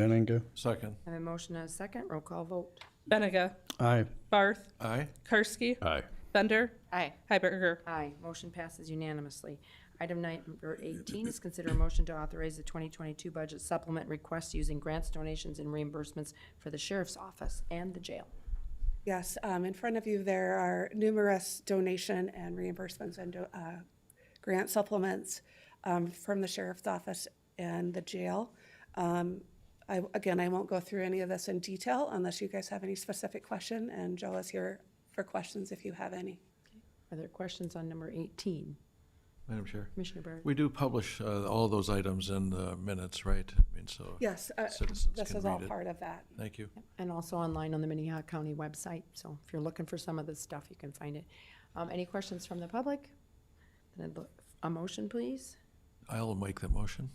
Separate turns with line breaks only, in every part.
Benega.
Second.
I have a motion and a second. Roll call vote.
Benega,
Aye.
Barth,
Aye.
Karski,
Aye.
Bender,
Aye.
Hiberger.
Aye. Motion passes unanimously. Item number 18 is consider a motion to authorize the 2022 budget supplement request using grants, donations, and reimbursements for the sheriff's office and the jail.
Yes, um, in front of you, there are numerous donation and reimbursements and uh, grant supplements um, from the sheriff's office and the jail. Um, I, again, I won't go through any of this in detail unless you guys have any specific question, and Joe is here for questions if you have any.
Are there questions on number 18?
Madam Chair.
Commissioner Barrett?
We do publish uh, all those items in the minutes, right? I mean, so.
Yes, uh,
Citizens
this
can
is all
read it.
part of that.
Thank you.
And also online on the Minnehaha County website, so if you're looking for some of this stuff, you can find it. Um, any questions from the public? Then I'd look, a motion, please?
I'll make the motion.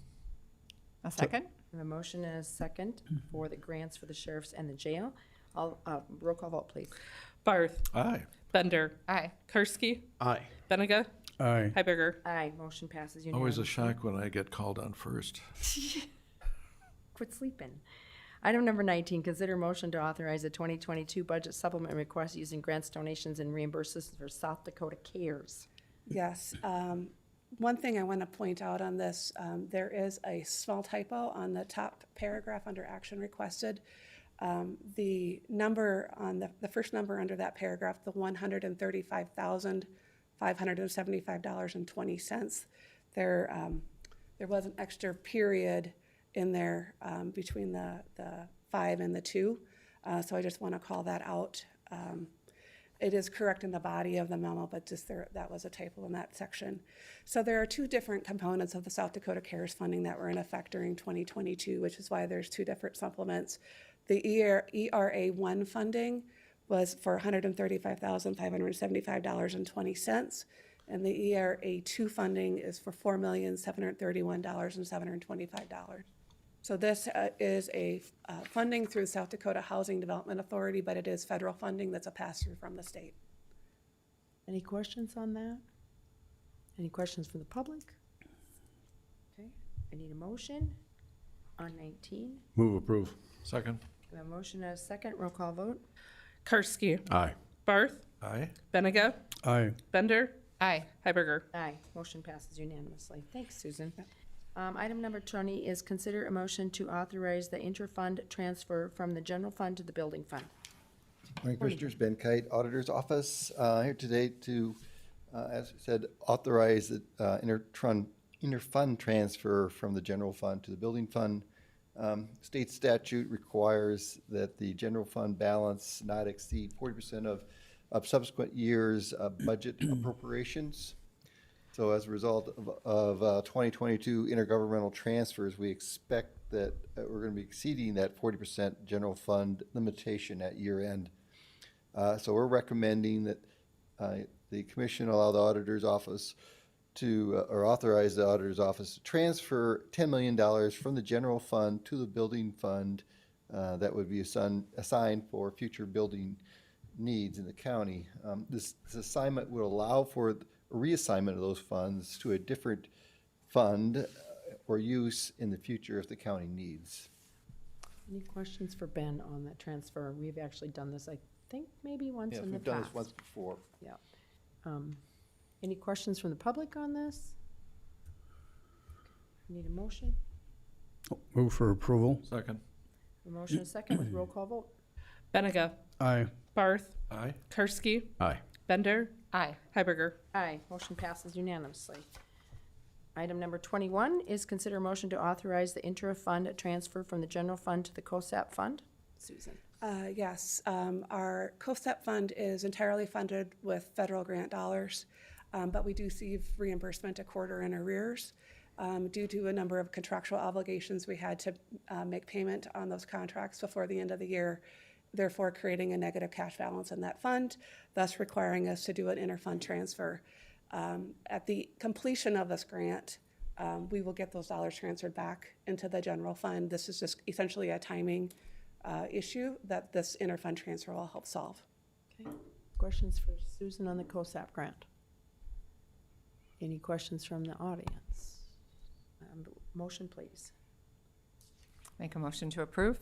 A second?
I have A motion and a second for the grants for the sheriffs and the jail. I'll, uh, roll call vote, please.
Barth,
Aye.
Bender,
Aye.
Karski,
Aye.
Benega,
Aye.
Hiberger.
Aye, motion passes
Always a
unanimously.
shock when I get called on first.
Quit sleeping. Item number nineteen, consider motion to authorize a twenty twenty-two budget supplement request using grants, donations, and reimbursements for South Dakota Cares.
Yes. um, One thing I want to point out on this, um, there is a small typo on the top paragraph under action requested. Um, The number on the, the first number under that paragraph, the one hundred and thirty-five thousand, five hundred and seventy-five dollars and twenty cents, there, um, there was an extra period in there um, between the, the five and the two. Uh, So I just want to call that out. Um, it is correct in the body of the memo, but just there, that was a typo in that section. So there are two different components of the South Dakota CARES funding that were in effect during 2022, which is why there's two different supplements. The ER ERA one funding was for $135,575.20, and the ERA two funding is for $4,731,725. So this uh, is a uh, funding through South Dakota Housing Development Authority, but it is federal funding that's a pass-through from the state.
Any questions on that? Any questions from the public? Okay, I need a motion on nineteen.
Move approve.
Second.
I have a motion and a second, roll call vote.
Karski,
Aye.
Barth,
Aye.
Benega,
Aye.
Bender,
Aye.
Hiberger.
Aye, motion passes unanimously. Thanks, Susan. Um, item number twenty is consider a motion to authorize the inter-fund transfer from the general fund to the building fund.
Morning, Commissioners. Ben Kite, Auditor's Office, uh, here today to, uh, as I said, authorize the uh, intertrun- inter-fund transfer from the general fund to the building fund. Um, State statute requires that the general fund balance not exceed forty percent of of subsequent years' uh, budget appropriations. So as a result of, of uh, 2022 intergovernmental transfers, we expect that uh, we're going to be exceeding that 40% general fund limitation at year end. Uh, So we're recommending that uh, the commission allow the auditor's office to, uh, or authorize the auditor's office to transfer $10 million from the general fund to the building fund uh, that would be assign- assigned for future building needs in the county. Um, This this assignment would allow for the reassignment of those funds to a different fund uh, or use in the future if the county needs.
Any questions for Ben on that transfer? We've actually done this, I think, maybe once
Yeah,
in the
We've done this
past.
once before.
Yeah. Um, Any questions from the public on this? Need a motion?
Move for approval.
Second.
A motion and a second with roll call vote?
Benega,
Aye.
Barth,
Aye.
Karski,
Aye.
Bender,
Aye.
Hiberger.
Aye, motion passes unanimously. Item number twenty-one is consider a motion to authorize the inter-fund transfer from the general fund to the COSAP fund. Susan?
Uh, Yes, um, our COSEP fund is entirely funded with federal grant dollars, um, but we do see reimbursement a quarter in arrears. Um, Due to a number of contractual obligations, we had to uh, make payment on those contracts before the end of the year, therefore creating a negative cash balance in that fund, thus requiring us to do an inter-fund transfer. Um, At the completion of this grant, um, we will get those dollars transferred back into the general fund. This is just essentially a timing uh, issue that this interfund transfer will help solve.
Okay. Questions for Susan on the COSAP grant? Any questions from the audience? Um, Motion, please.
Make a motion to approve?